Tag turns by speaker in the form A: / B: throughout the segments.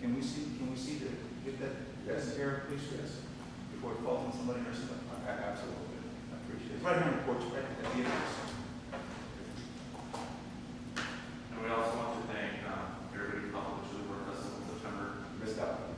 A: Can we see, can we see the, get that,
B: Yes.
A: air, please, yes, before it falls on somebody or something? A- a- Absolutely, I appreciate it. Right here on the porch, right at the end of this.
C: And we also want to thank um, everybody who helped with the work us in September.
B: Missed out.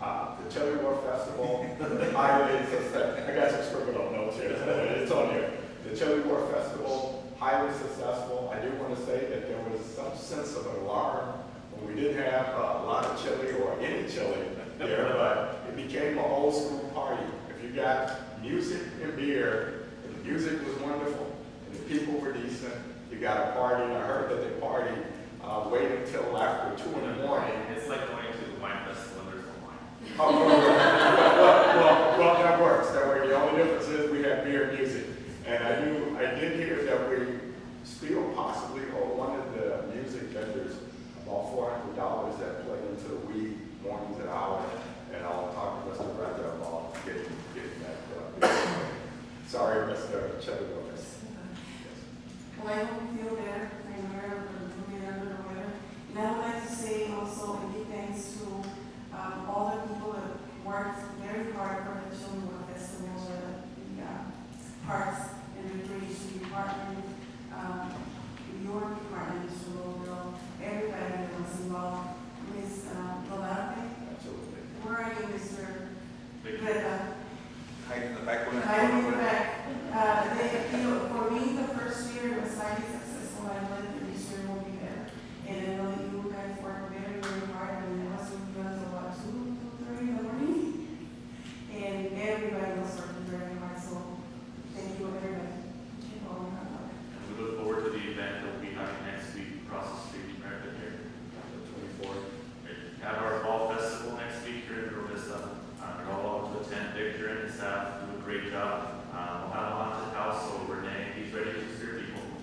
B: Uh, the Cherry Wharf Festival, highways, I got some scribbled on notes here, so it's on here. The Cherry Wharf Festival, highly successful. I do want to say that there was some sense of alarm when we didn't have uh, a lot of chili or any chili there, but it became an old school party. If you got music and beer, and the music was wonderful, and the people were decent, you got a party, and I heard that they partied, uh, waited until after two in the morning
C: It's like going to the wine festival, and there's no wine.
B: Oh, well, well, well, well, that works, that way, the only difference is we have beer and music. And I knew, I did hear that we still possibly owe one of the music vendors about four hundred dollars that play until we mornings at hour. And I'll talk to Mr. Raja about getting, getting that, uh, sorry, Mr. Cheddarovich.
D: Well, I hope you feel better, I'm aware of the movie under the weather. And I would like to say also a big thanks to um, all the people that worked very hard for the children with festival, the, the uh, parks and recreation department, um, your department, Mr. Robill, everybody that was involved, Ms. Valente,
B: Absolutely.
D: where are you, Mr.
C: Big-
D: Greta?
A: Hide in the back corner.
D: I remember that, uh, they, you know, for me, the first year was highly successful, I went through this year will be better. And I know that you guys worked very, very hard, and it wasn't until what, two, two, three in the morning? And everybody was working very hard, so thank you, everybody. Keep on hard work.
C: And we look forward to the event that we'll be having next week across the street from America here.
B: Twenty-four.
C: We Have our fall festival next week here in Rio Vista. Uh, You're all welcome to attend. Victor and his staff do a great job. Uh, We'll have a haunted house, so Renee, he's ready to steer people.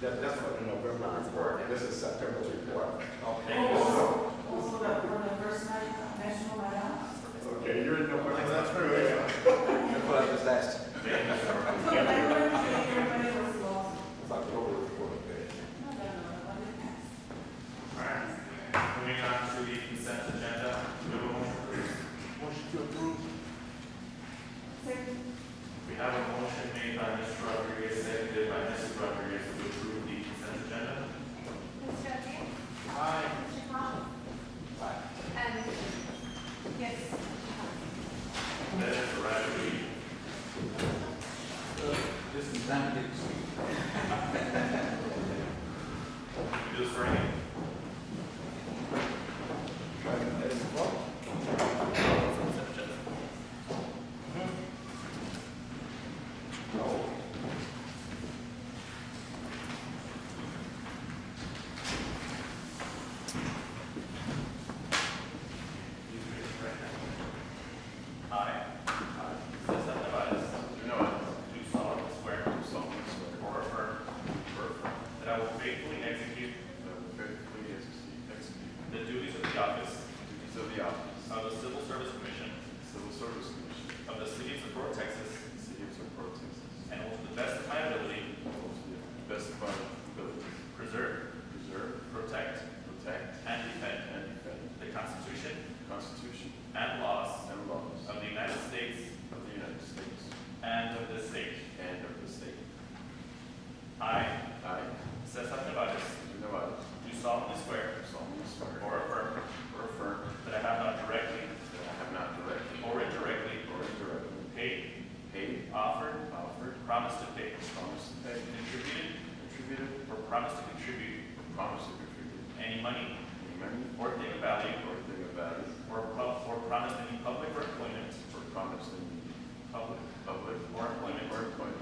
B: That, that's what the November report, this is September report.
C: Thank you.
D: Also, also the, for the first night, uh, National Night Out.
B: Okay, you're in November.
A: That's true, yeah. Your brother was last.
C: Thank you. Sarah.
D: So everybody, everybody was involved.
B: It's October report, okay.
D: Not that, uh, but it passed.
C: All right, moving on to the consent agenda. We have a motion.
A: Motion to approve.
D: Second.
C: We have a motion made by Mr. Rodriguez, seconded by Mrs. Rodriguez to approve the consent agenda.
E: Mr. O'Day?
A: Aye.
E: Mr. Conlon? And, yes,
C: Then Mr. Rodriguez,
A: Just in time to get to speak.
C: you just bring it. Consent agenda.
B: No.
C: You can raise your right hand. Aye. Since that device, you know it, do solemnly swear. Do solemnly swear. Or affirm. Or affirm. That I will faithfully execute. That I will faithfully execute. The duties of the office. Duties of the office. Of the Civil Service Commission. Civil Service Commission. Of the City of Socorro, Texas. City of Socorro, Texas. And will to the best of my ability. Best of my ability. Preserve. Preserve. Protect. Protect. And defend. And defend. The Constitution. Constitution. And laws. And laws. Of the United States. Of the United States. And of this state. And of this state. I. I. Cesar Nevares. Nevares. Do solemnly swear. solemnly swear. Or affirm. Or affirm. That I have not directly. That I have not directly. Or indirectly. Or indirectly. Paid. Paid. Offered. Offered. Promised to pay. Promised to pay. Contributed. Contributed. Or promised to contribute. Or promised to contribute. Any money. Any money. Or thing of value. Or thing of value. Or pro- or promised any public or employment. Or promised any. Public. Public. Or employment. Or employment.